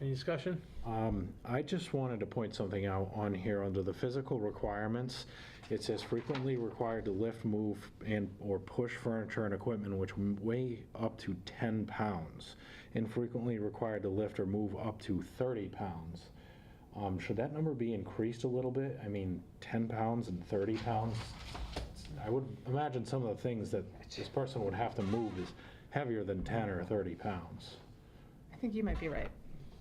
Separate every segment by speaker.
Speaker 1: Any discussion?
Speaker 2: Um, I just wanted to point something out on here, under the physical requirements, it says frequently required to lift, move, and/or push furniture and equipment which weigh up to 10 pounds, and frequently required to lift or move up to 30 pounds. Um, Should that number be increased a little bit? I mean, 10 pounds and 30 pounds? I would imagine some of the things that this person would have to move is heavier than 10 or 30 pounds.
Speaker 3: I think you might be right.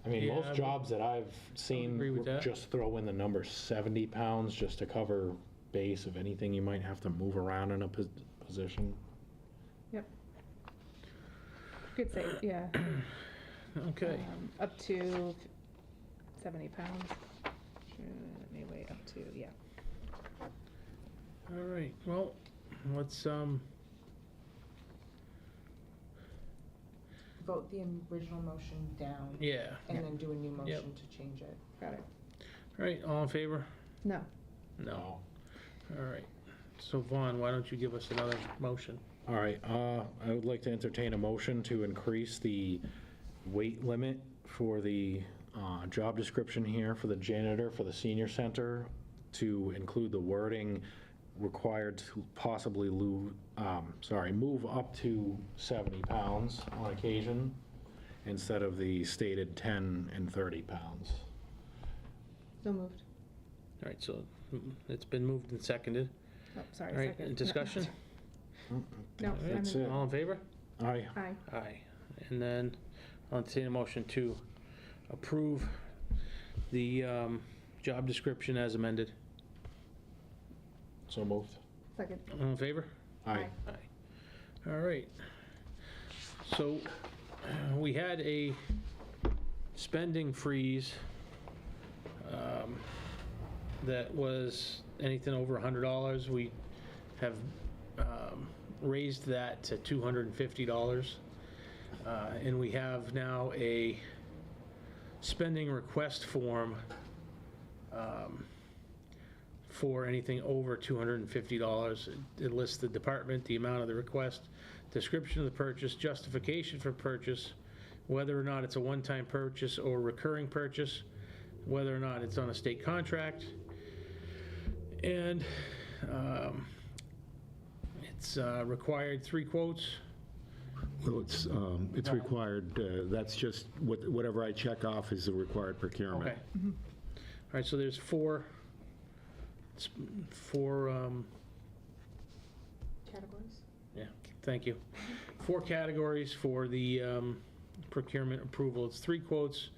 Speaker 2: I mean,
Speaker 1: Yeah, I
Speaker 2: most
Speaker 1: would-
Speaker 2: jobs that I've seen
Speaker 1: agree with
Speaker 2: would
Speaker 1: that.
Speaker 2: just throw in the number 70 pounds just to cover base of anything you might have to move around in a pos- position.
Speaker 3: Yep. You could say, yeah,
Speaker 1: Okay,
Speaker 3: um, up to f- 70 pounds. Maybe weigh up to, yeah.
Speaker 1: all right, well, let's, um,
Speaker 4: vote the original motion down
Speaker 1: yeah,
Speaker 4: and then do a new
Speaker 1: Yep.
Speaker 4: motion to change it.
Speaker 3: Got it.
Speaker 1: all right, all in favor?
Speaker 3: No.
Speaker 1: No, all right. So Vaughn, why don't you give us another motion?
Speaker 2: All right, uh, I would like to entertain a motion to increase the weight limit for the uh, job description here for the janitor for the senior center to include the wording required to possibly lose, sorry, move up to 70 pounds on occasion instead of the stated 10 and 30 pounds.
Speaker 3: So moved.
Speaker 1: All right, so mm, it's been moved and seconded.
Speaker 3: Oh, sorry,
Speaker 1: All right,
Speaker 3: second.
Speaker 1: discussion?
Speaker 3: No,
Speaker 1: All right,
Speaker 3: I'm
Speaker 2: That's
Speaker 3: in.
Speaker 2: it.
Speaker 1: All in favor?
Speaker 2: Aye.
Speaker 3: Aye.
Speaker 1: Aye. And then I'll entertain a motion to approve the um, job description as amended.
Speaker 2: So moved.
Speaker 3: Second.
Speaker 1: All in favor?
Speaker 2: Aye.
Speaker 1: Aye. All right. So uh, we had a spending freeze um, that was anything over $100. We have um, raised that to $250. Uh, And we have now a spending request form um, for anything over $250. It- It lists the department, the amount of the request, description of the purchase, justification for purchase, whether or not it's a one-time purchase or recurring purchase, whether or not it's on a state contract. And um, it's uh, required three quotes.
Speaker 5: Well, it's, um, it's required, uh, that's just, what- whatever I check off is the required procurement.
Speaker 1: Okay. All right, so there's four, it's four um,
Speaker 4: Categories?
Speaker 1: Thank you. Four categories for the um, procurement approval. It's three quotes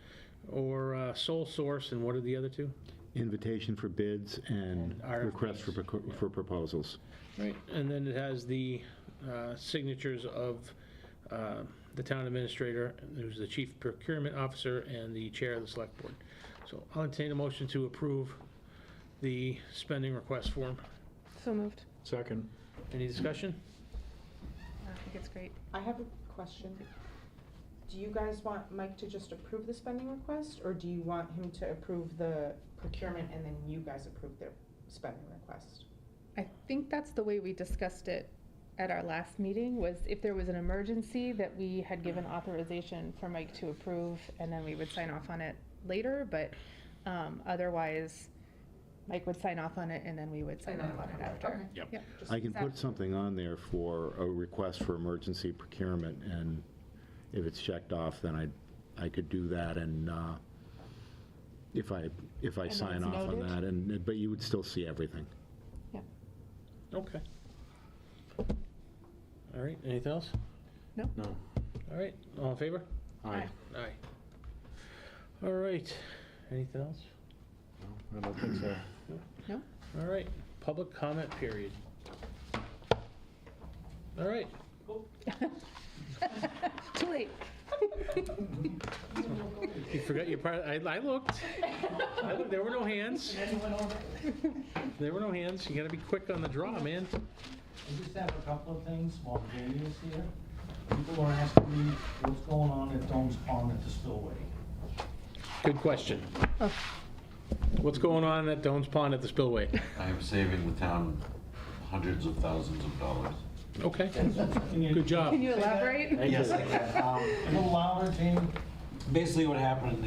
Speaker 1: or uh, sole source, and what are the other two?
Speaker 5: Invitation for bids and
Speaker 1: And
Speaker 5: request for, proco- for proposals.
Speaker 1: Right. And then it has the uh, signatures of uh, the town administrator, who's the chief procurement officer, and the chair of the select board. So I'll entertain a motion to approve the spending request form.
Speaker 3: So moved.
Speaker 2: Second.
Speaker 1: Any discussion?
Speaker 3: I think it's great.
Speaker 4: I have a question. Do you guys want Mike to just approve the spending request, or do you want him to approve the procurement and then you guys approve their spending request?
Speaker 3: I think that's the way we discussed it at our last meeting, was if there was an emergency that we had given authorization for Mike to approve, and then we would sign off on it later, but um, otherwise, Mike would sign off on it, and then we would sign off on it after.
Speaker 2: Yep.
Speaker 3: Yep.
Speaker 4: Just-
Speaker 5: I can
Speaker 3: Exactly.
Speaker 5: put something on there for a request for emergency procurement, and if it's checked off, then I, I could do that, and uh, if I, if I
Speaker 3: then
Speaker 5: sign
Speaker 3: it's
Speaker 5: off on
Speaker 3: noted?
Speaker 5: that, and, but you would still see everything.
Speaker 1: Okay. All right, anything else?
Speaker 2: No.
Speaker 1: All right, all in favor?
Speaker 2: Aye.
Speaker 3: Aye.
Speaker 1: Aye. All right, anything else?
Speaker 2: No, I don't think so.
Speaker 1: All right, public comment period. All right,
Speaker 3: Too late.
Speaker 1: you forgot your part, I, I looked. I looked, There were no hands. There were no hands, you gotta be quick on the draw, man.
Speaker 6: I just have a couple of things while Jamie is here. People are asking me what's going on at Dome's Pond at the spillway.
Speaker 1: Good question. What's going on at Doan's Pond at the spillway?
Speaker 7: I'm saving the town hundreds of thousands of dollars.
Speaker 1: Okay,
Speaker 6: Can you-
Speaker 1: good job.
Speaker 3: Can you elaborate?
Speaker 6: Yes, I can. Um, A little louder, Jamie.
Speaker 7: Basically, what happened